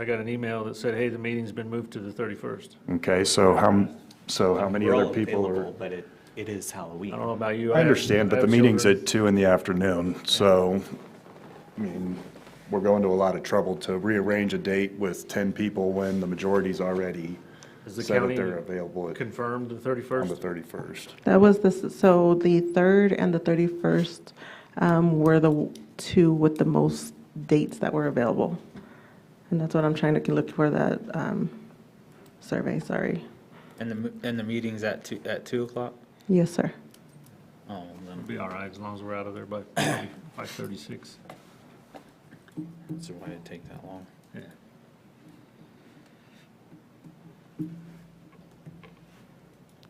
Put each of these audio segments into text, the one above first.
I got an email that said, hey, the meeting's been moved to the 31st. Okay, so how, m- so how many We're other all people are? available, But it, it is Halloween. I don't know about you. I have- understand, but I the have meeting's children. at two in the afternoon, so, I mean, we're going to a lot of trouble to rearrange a date with 10 people when the majority's already Is the said that county they're available at- Confirmed the on the 31st? 31st. That was the, so the 3rd and the 31st um, were the two with the most dates that were available. And that's what I'm trying to look for, that um, survey, sorry. And the, m- and the meeting's at two, at two o'clock? Yes, sir. Oh, then, Be all right, as long as we're out of there by 5:36. so why did it take that long? Yeah.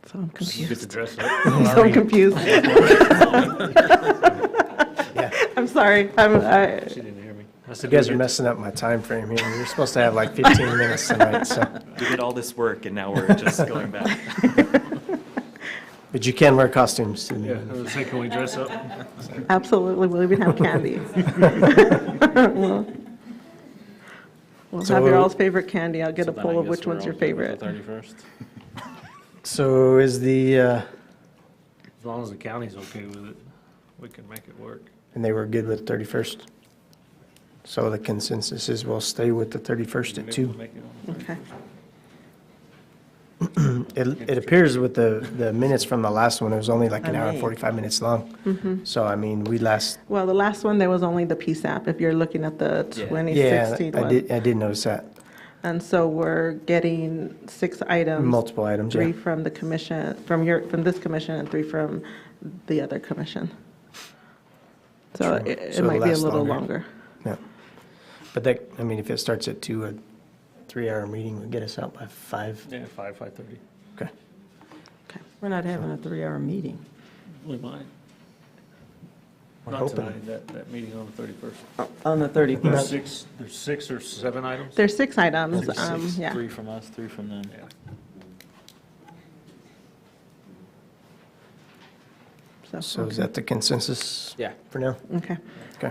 So I'm You get confused. to dress up. So I'm confused. I'm sorry, I'm, I, She didn't hear me. I You said, guys we are get- messing up my time frame here. You're supposed to have like 15 minutes tonight, so. We did all this work and now we're just going back. But you can wear costumes to the Yeah, I meeting. was gonna say, can we dress up? absolutely, we'll even have candy. We'll- We'll have your So- all's favorite candy. I'll get a poll of which one's your favorite. Thirty-first? So is the, uh, As long as the county's okay with it, we can make it work. and they were good with 31st? So the consensus is we'll stay with the 31st at Maybe 2. make it on the Okay. It, it appears with the, the minutes from the last one, it was only like an hour and 45 minutes Mm-hmm. long. So I mean, we last, Well, the last one, there was only the PSAP, if you're looking at the Yeah. yeah, 2016 I one. did, I did notice that. And so we're getting six Um, items. Multiple items, yeah. Three from the commission, from your, from this commission, and three from the other commission. So it- it So might be a last little longer. longer. Yeah. But that, I mean, if it starts at 2, a three-hour meeting would get us out by 5. Yeah, 5, 5:30. Okay. Okay. We're not having a three-hour meeting. We might. We're Not hoping. tonight, that, that meeting on the 31st. On the 31st. There's six, there's six or seven items? There's six items, um, yeah. Three from us, three from them. Yeah. So is that the consensus? Yeah. For now? Okay. Okay.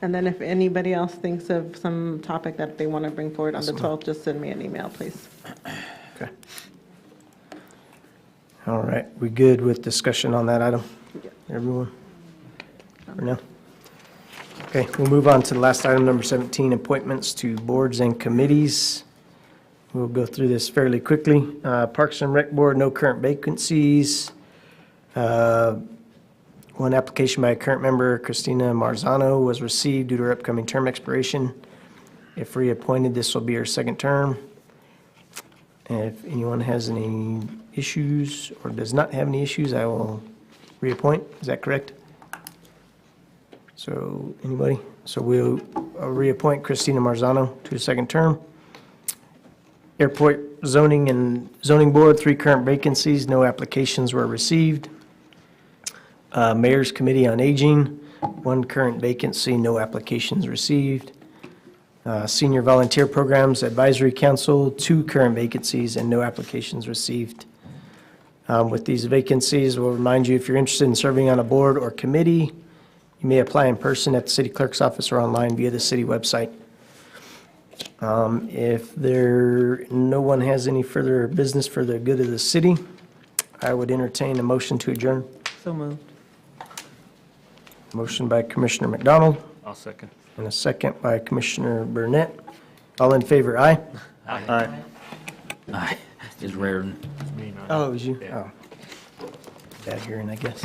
And then if anybody else thinks of some topic that they want to bring forward on the 12th, just send me an email, please. Okay. All right, we good with discussion on that item? Everyone? For now? Okay, we'll move on to the last item, number 17, appointments to boards and committees. We'll go through this fairly quickly. Uh, Parks and Rec Board, no current vacancies. Uh, One application by a current member, Christina Marzano, was received due to her upcoming term expiration. If reappointed, this will be her second term. And if anyone has any issues or does not have any issues, I will reappoint. Is that correct? So, anybody? So we'll uh, reappoint Christina Marzano to a second term. Airport zoning and zoning board, three current vacancies, no applications were received. Uh, Mayor's Committee on Aging, one current vacancy, no applications received. Uh, Senior Volunteer Programs Advisory Council, two current vacancies and no applications received. Um, With these vacancies, we'll remind you, if you're interested in serving on a board or committee, you may apply in person at the city clerk's office or online via the city website. Um, If there, no one has any further business for the good of the city, I would entertain a motion to adjourn. So moved. Motion by Commissioner McDonald I'll second. and a second by Commissioner Burnett. All in favor, aye? Is Raritan. It's me, not- Oh, it was you? Yeah. Oh. Bad hearing, I guess.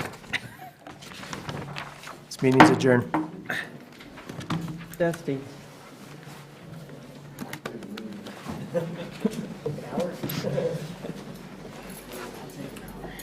This meeting's adjourned. Dusty.